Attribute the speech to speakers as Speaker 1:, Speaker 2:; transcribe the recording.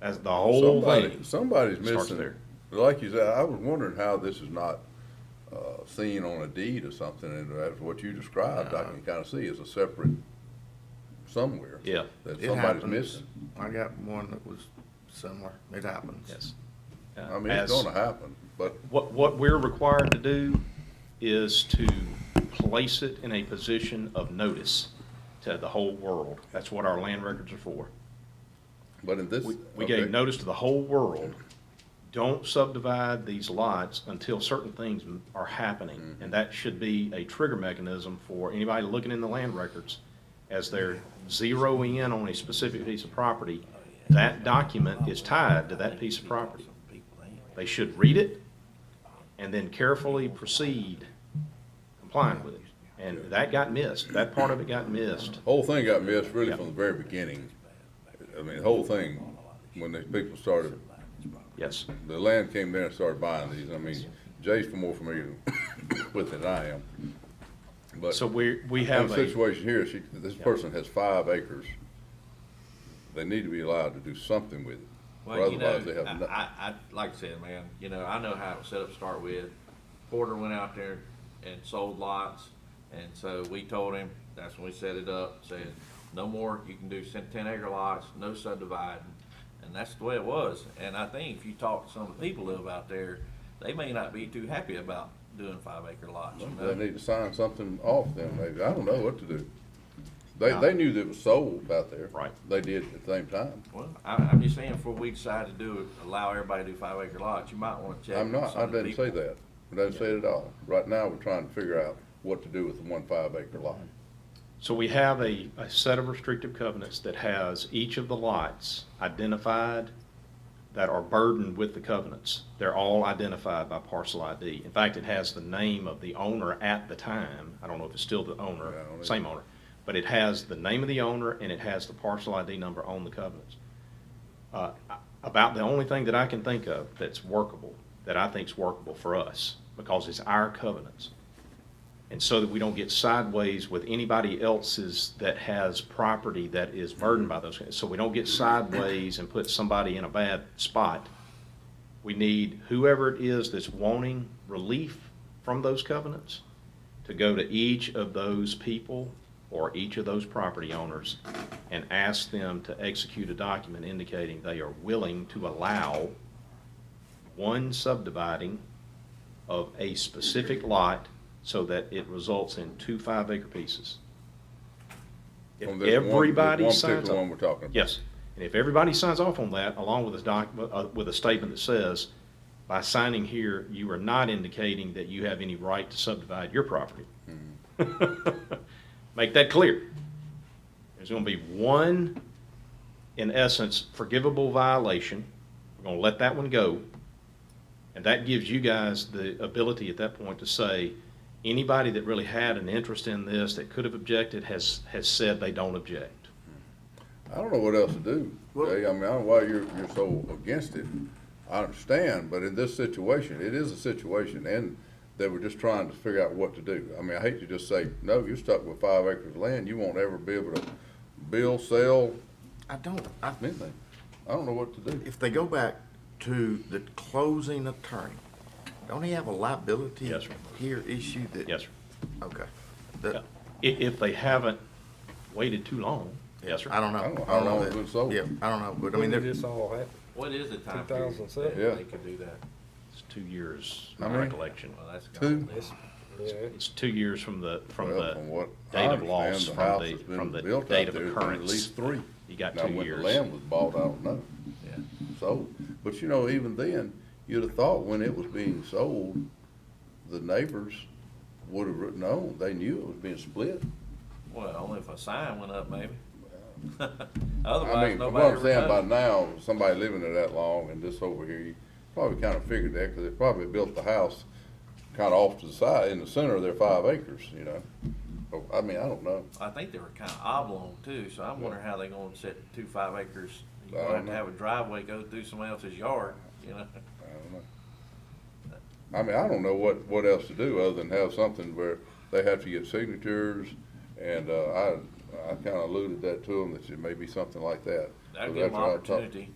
Speaker 1: That's the whole
Speaker 2: Somebody,
Speaker 1: thing.
Speaker 2: somebody's
Speaker 1: Starts
Speaker 2: missing.
Speaker 1: there.
Speaker 2: Like you said, I was wondering how this is not, uh, seen on a deed or something, and that's what you described, I can kinda see as a separate somewhere.
Speaker 1: Yeah.
Speaker 2: That
Speaker 3: It
Speaker 2: somebody's
Speaker 3: happens.
Speaker 2: missing.
Speaker 3: I got one that was similar. It happens.
Speaker 1: Yes. Uh,
Speaker 2: I mean, it's
Speaker 1: as-
Speaker 2: gonna happen, but
Speaker 1: What, what we're required to do is to place it in a position of notice to the whole world. That's what our land records are for.
Speaker 2: But in this.
Speaker 1: We, we
Speaker 2: okay,
Speaker 1: gave notice to the whole world, don't subdivide these lots until certain things m- are happening. And that should be a trigger mechanism for anybody looking in the land records as they're zeroing in on a specific piece of property. That document is tied to that piece of property. They should read it and then carefully proceed complying with it. And that got missed. That part of it got missed.
Speaker 2: Whole thing got missed really
Speaker 1: Yeah.
Speaker 2: from the very beginning. I mean, the whole thing, when these people started,
Speaker 1: Yes.
Speaker 2: the land came there and started buying these, I mean, Jay's more familiar with it than I am. But
Speaker 1: So we, we
Speaker 2: in
Speaker 1: have
Speaker 2: the
Speaker 1: a.
Speaker 2: situation here, she, this person has five acres. They need to be allowed to do something with it, or
Speaker 4: Well, you know,
Speaker 2: otherwise they have nothing.
Speaker 4: I, I, I, like I said, man, you know, I know how it was set up to start with. Porter went out there and sold lots, and so we told him, that's when we set it up, said, no more, you can do ten ten acre lots, no subdividing. And that's the way it was, and I think if you talk to some of the people that live out there, they may not be too happy about doing five acre lots, you know?
Speaker 2: They need to sign something off them, maybe, I don't know what to do. They, they knew that it was sold out there.
Speaker 1: Right.
Speaker 2: They did at the same time.
Speaker 4: Well, I, I'm just saying, before we decide to do, it, allow everybody to do five acre lots, you might wanna check.
Speaker 2: I'm
Speaker 4: with
Speaker 2: not,
Speaker 4: some
Speaker 2: I
Speaker 4: of the
Speaker 2: didn't
Speaker 4: people.
Speaker 2: say that. I didn't say it at all. Right now, we're trying to figure out what to do with the one five acre lot.
Speaker 1: So we have a, a set of restrictive covenants that has each of the lots identified that are burdened with the covenants. They're all identified by parcel ID. In fact, it has the name of the owner at the time. I don't know if it's still the
Speaker 2: Yeah, I
Speaker 1: owner,
Speaker 2: don't know.
Speaker 1: same owner. But it has the name of the owner and it has the parcel ID number on the covenants. Uh, I- About the only thing that I can think of that's workable, that I think's workable for us, because it's our covenants and so that we don't get sideways with anybody else's that has property that is burdened by those. So we don't get sideways and put somebody in a bad spot. We need whoever it is that's wanting relief from those covenants to go to each of those people or each of those property owners and ask them to execute a document indicating they are willing to allow one subdividing of a specific lot so that it results in two five-acre pieces. If
Speaker 2: On this one- this
Speaker 1: everybody
Speaker 2: One
Speaker 1: signs
Speaker 2: particular one
Speaker 1: off,
Speaker 2: we're talking about.
Speaker 1: yes, and if everybody signs off on that, along with a doc, uh, with a statement that says, by signing here, you are not indicating that you have any right to subdivide your property. Make that clear. There's gonna be one, in essence, forgivable violation. We're gonna let that one go. And that gives you guys the ability at that point to say, anybody that really had an interest in this that could have objected has, has said they don't object.
Speaker 2: I don't know what else to do.
Speaker 3: Well-
Speaker 2: Jay. I mean, I don't know why you're, you're so against it. I understand, but in this situation, it is a situation and they were just trying to figure out what to do. I mean, I hate to just say, no, you're stuck with five acres of land. You won't ever be able to build, sell,
Speaker 3: I don't, I,
Speaker 2: anything. I don't know what to do.
Speaker 3: if they go back to the closing attorney, don't he have a liability?
Speaker 1: Yes, sir.
Speaker 3: Here issue that?
Speaker 1: Yes, sir.
Speaker 3: Okay.
Speaker 1: Yeah.
Speaker 3: That-
Speaker 1: If, if they haven't waited too long, yes,
Speaker 3: I
Speaker 1: sir.
Speaker 3: don't know.
Speaker 2: I don't know how long it's been sold.
Speaker 3: Yeah, I don't know, but I mean,
Speaker 5: When did
Speaker 3: they're,
Speaker 5: this all happen?
Speaker 4: What is the time period that
Speaker 5: 2007?
Speaker 2: Yeah.
Speaker 4: they could do that?
Speaker 1: It's two years,
Speaker 2: How
Speaker 1: my
Speaker 2: many?
Speaker 1: recollection.
Speaker 4: Well, that's.
Speaker 2: Two?
Speaker 4: gone.
Speaker 5: Yeah.
Speaker 1: It's two years from the, from
Speaker 2: Well,
Speaker 1: the
Speaker 2: from what I
Speaker 1: date of loss, from
Speaker 2: understand, the house
Speaker 1: the,
Speaker 2: that's been
Speaker 1: from the
Speaker 2: built out
Speaker 1: date of
Speaker 2: there has been At
Speaker 1: occurrence.
Speaker 2: least three.
Speaker 1: You got
Speaker 2: Now,
Speaker 1: two
Speaker 2: when the
Speaker 1: years.
Speaker 2: land was bought, I don't know.
Speaker 4: Yeah.
Speaker 2: So, but you know, even then, you'd have thought when it was being sold, the neighbors would have known, they knew it was being split.
Speaker 4: Well, only if a sign went up, maybe.
Speaker 2: I
Speaker 4: Otherwise,
Speaker 2: mean, from what
Speaker 4: nobody
Speaker 2: I'm saying,
Speaker 4: ever
Speaker 2: by
Speaker 4: knows.
Speaker 2: now, somebody living there that long and this over here, you probably kind of figured that, because they probably built the house kind of off to the side, in the center of their five acres, you know? So, I mean, I don't know.
Speaker 4: I think they were kinda oblong too, so I'm wondering how they gonna set two five acres.
Speaker 2: I
Speaker 4: You're
Speaker 2: don't
Speaker 4: gonna have to
Speaker 2: know.
Speaker 4: have a driveway go through somebody else's yard, you know?
Speaker 2: I don't know. I mean, I don't know what, what else to do other than have something where they have to get signatures, and, uh, I, I kinda alluded that to them, that it may be something like that.
Speaker 4: That'd
Speaker 2: So
Speaker 4: give them
Speaker 2: that's what I was talking-
Speaker 4: opportunity